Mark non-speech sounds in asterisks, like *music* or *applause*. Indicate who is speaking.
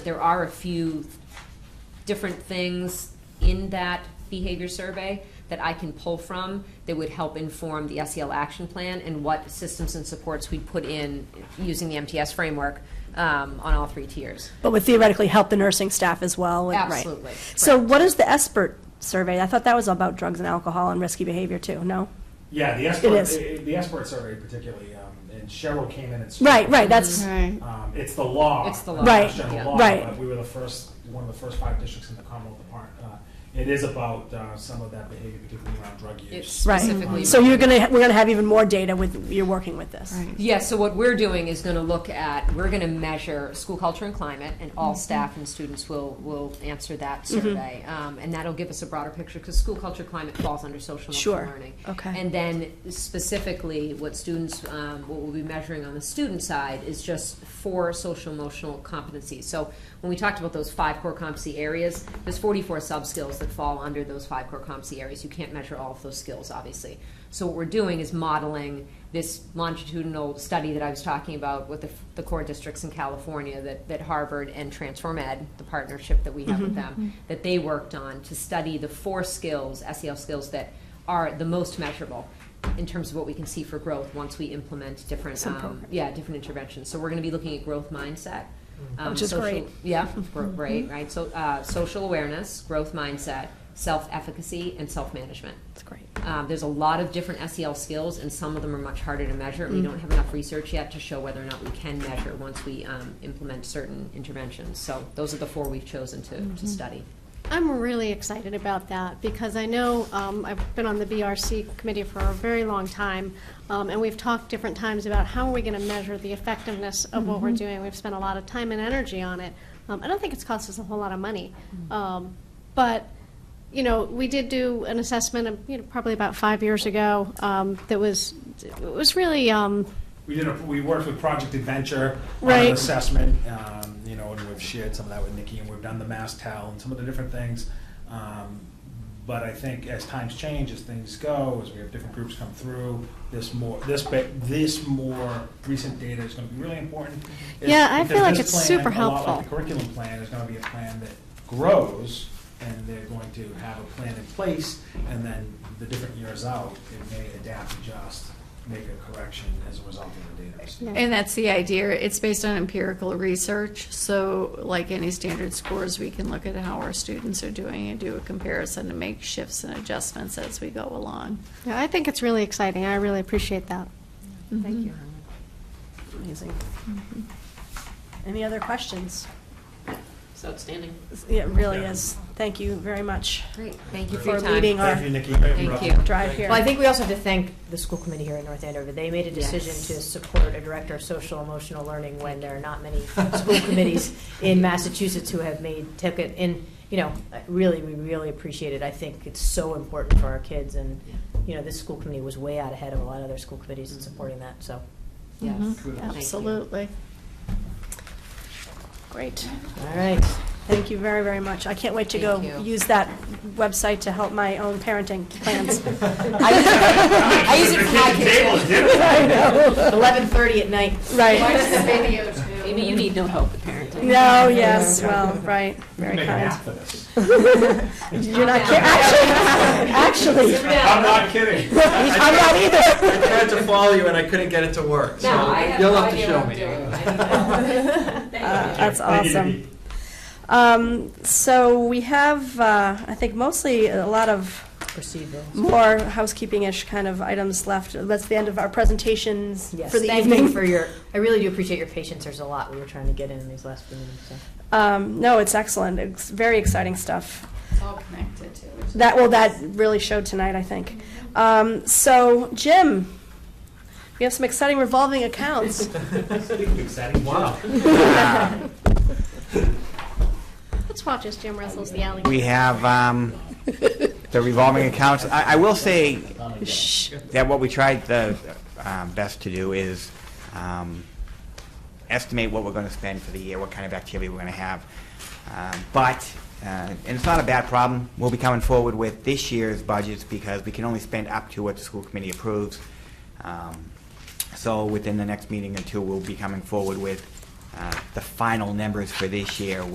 Speaker 1: there are a few different things in that behavior survey that I can pull from that would help inform the SEL action plan and what systems and supports we put in using the MTS framework um, on all three tiers.
Speaker 2: But would theoretically help the nursing staff as well. and- right.
Speaker 1: Absolutely,
Speaker 2: So
Speaker 1: correct.
Speaker 2: what is the ESPERT survey? I thought that was about drugs and alcohol and risky behavior too, no?
Speaker 3: Yeah, the
Speaker 2: is.
Speaker 3: Esport, the Esport survey particularly, um, and Cheryl came in and.
Speaker 2: Right, right, that's,
Speaker 4: Right.
Speaker 3: Um, it's the law.
Speaker 1: It's the law.
Speaker 2: Right,
Speaker 3: It's general
Speaker 1: yeah.
Speaker 3: law,
Speaker 2: right.
Speaker 3: but We were the first, one of the first five districts in the Commonwealth of Par- uh It is about, uh, some of that behavior, particularly around drug
Speaker 1: It's
Speaker 3: use.
Speaker 1: specifically-
Speaker 2: right. So you're gonna, we're gonna have even more data with, you're working with this.
Speaker 4: Right.
Speaker 1: Yeah, so what we're doing is going to look at, we're going to measure school culture and climate, and
Speaker 2: Mm-hmm.
Speaker 1: all staff and students will, will answer that survey. Um, and that'll give us a broader picture, because school culture, climate falls under social emotional
Speaker 2: Sure.
Speaker 1: learning.
Speaker 2: Okay.
Speaker 1: And then specifically, what students, um, what we'll be measuring on the student side is just four social emotional competencies. So when we talked about those five core competency areas, there's 44 sub skills that fall under those five core competency areas. You can't measure all of those skills, obviously. So what we're doing is modeling this longitudinal study that I was talking about with the, the core districts in California that, that Harvard and Transform Ed, the partnership that we have with them, that they worked on to study the four skills, SEL skills that are the most measurable in terms of what we can see for growth once we implement different,
Speaker 2: Some
Speaker 1: um,
Speaker 2: programs.
Speaker 1: yeah, different interventions. So we're going to be looking at growth mindset. um,
Speaker 2: Mm. Which is
Speaker 1: social-
Speaker 2: great. *laughs* Mm-hmm.
Speaker 1: Yeah, gro- great, right? So, uh, social awareness, growth mindset, self-efficacy, and self-management.
Speaker 2: That's great.
Speaker 1: Um, there's a lot of different SEL skills, and some of them are much harder to measure.
Speaker 2: Mm.
Speaker 1: and We don't have enough research yet to show whether or not we can measure once we um, implement certain interventions. So those are the four we've chosen to,
Speaker 2: Mm-hmm.
Speaker 1: to study.
Speaker 5: I'm really excited about that because I know um, I've been on the BRC committee for a very long time, um, and we've talked different times about how are we going to measure the effectiveness of what we're doing. We've spent a lot of time and energy on it. Um, I don't think it's cost us a whole lot of money, um, but you know, we did do an assessment, of, you know, probably about five years ago um, that was it was really. Um,
Speaker 3: We did, a we worked with Project Adventure on an
Speaker 5: Right.
Speaker 3: assessment, um, you know, and we've shared some of that with Nikki, and we've done the Mass Tell and some of the different things. Um, But I think as times change, as things go, as we have different groups come through, this more, this, ba- this more recent data is gonna be really important. It's-
Speaker 5: Yeah, I feel
Speaker 3: because
Speaker 5: like
Speaker 3: this
Speaker 5: it's
Speaker 3: plan,
Speaker 5: super
Speaker 3: a lot like the
Speaker 5: helpful.
Speaker 3: curriculum plan is gonna be a plan that grows, and they're going to have a plan in place, and then the different years out, it may adapt, adjust, make a correction as a result of the data. received.
Speaker 5: Yeah.
Speaker 4: And that's the idea. It's based on empirical research. So, like any standard scores, we can look at how our students are doing and do a comparison and make shifts and adjustments as we go along.
Speaker 5: yeah, I think it's really exciting. I really appreciate that.
Speaker 2: Mm-hmm.
Speaker 4: Mm-hmm.
Speaker 1: Thank you.
Speaker 2: Amazing. Mm-hmm. Any other questions?
Speaker 6: It's outstanding.
Speaker 2: It really is. Thank you very much
Speaker 1: Great. Thank you for your
Speaker 2: for
Speaker 1: time.
Speaker 2: leading our
Speaker 3: Thank you, Nikki.
Speaker 1: Thank you.
Speaker 2: drive here.
Speaker 7: Well, I think we also have to thank the school committee here in North Andover. They made a decision
Speaker 1: Yes.
Speaker 7: to support a director of social emotional learning when there are not many school committees in Massachusetts who have made, took it, and, you know, really, we really appreciate it. I think it's so important for our kids, and, you know, this school committee was way out ahead of a lot of other school committees in supporting that, so.
Speaker 1: Yes.
Speaker 2: Mm-hmm.
Speaker 4: Mhm.
Speaker 1: Thank you.
Speaker 4: Absolutely.
Speaker 2: Great.
Speaker 7: All right.
Speaker 2: Thank you very, very much. I can't wait to go
Speaker 1: Thank you.
Speaker 2: use that website to help my own parenting plans.
Speaker 1: *laughs*
Speaker 3: *laughs*
Speaker 1: I
Speaker 2: *laughs*
Speaker 1: use it for my kids.
Speaker 7: Eleven thirty at night.
Speaker 2: Right. *laughs*
Speaker 6: Amy, you need no help with parenting.
Speaker 2: No, yes, well, right, very
Speaker 3: Make an
Speaker 2: kind.
Speaker 3: app for this.
Speaker 2: You're not kidding,
Speaker 1: *laughs*
Speaker 2: actually, actually,
Speaker 3: I'm not kidding.
Speaker 2: *laughs* I'm not either.
Speaker 8: I tried to follow you and I couldn't get it to work, so
Speaker 1: No, I have
Speaker 8: you'll
Speaker 1: no
Speaker 8: have to
Speaker 1: idea
Speaker 8: show
Speaker 1: what I'm
Speaker 8: me.
Speaker 1: doing.
Speaker 2: *laughs* Uh, That's
Speaker 3: Thank you,
Speaker 2: awesome.
Speaker 3: Nikki.
Speaker 2: Um, so we have, uh, I think mostly a lot of
Speaker 7: Procedural.
Speaker 2: more housekeeping-ish kind of items left. That's the end of our presentations
Speaker 7: Yes,
Speaker 2: for the
Speaker 7: thank you
Speaker 2: evening.
Speaker 7: for your, I really do appreciate your patience. There's a lot we were trying to get in in these last few minutes, so.
Speaker 2: *laughs* Um, no, it's excellent. It's very exciting stuff.
Speaker 4: It's all connected to it.
Speaker 2: That, well, that really showed tonight, I think. Um, so, Jim, we have some exciting revolving accounts.
Speaker 8: Wow.
Speaker 5: Let's watch as Jim wrestles the alligator.
Speaker 9: We have um, the revolving accounts. I I will say that what we tried the uh, best to do is um, estimate what we're going to spend for the year, what kind of activity we're going to have. Um, But, uh, and it's not a bad problem, we'll be coming forward with this year's budgets because we can only spend up to what the school committee approves. Um, So within the next meeting or two, we'll be coming forward with uh, the final numbers for this year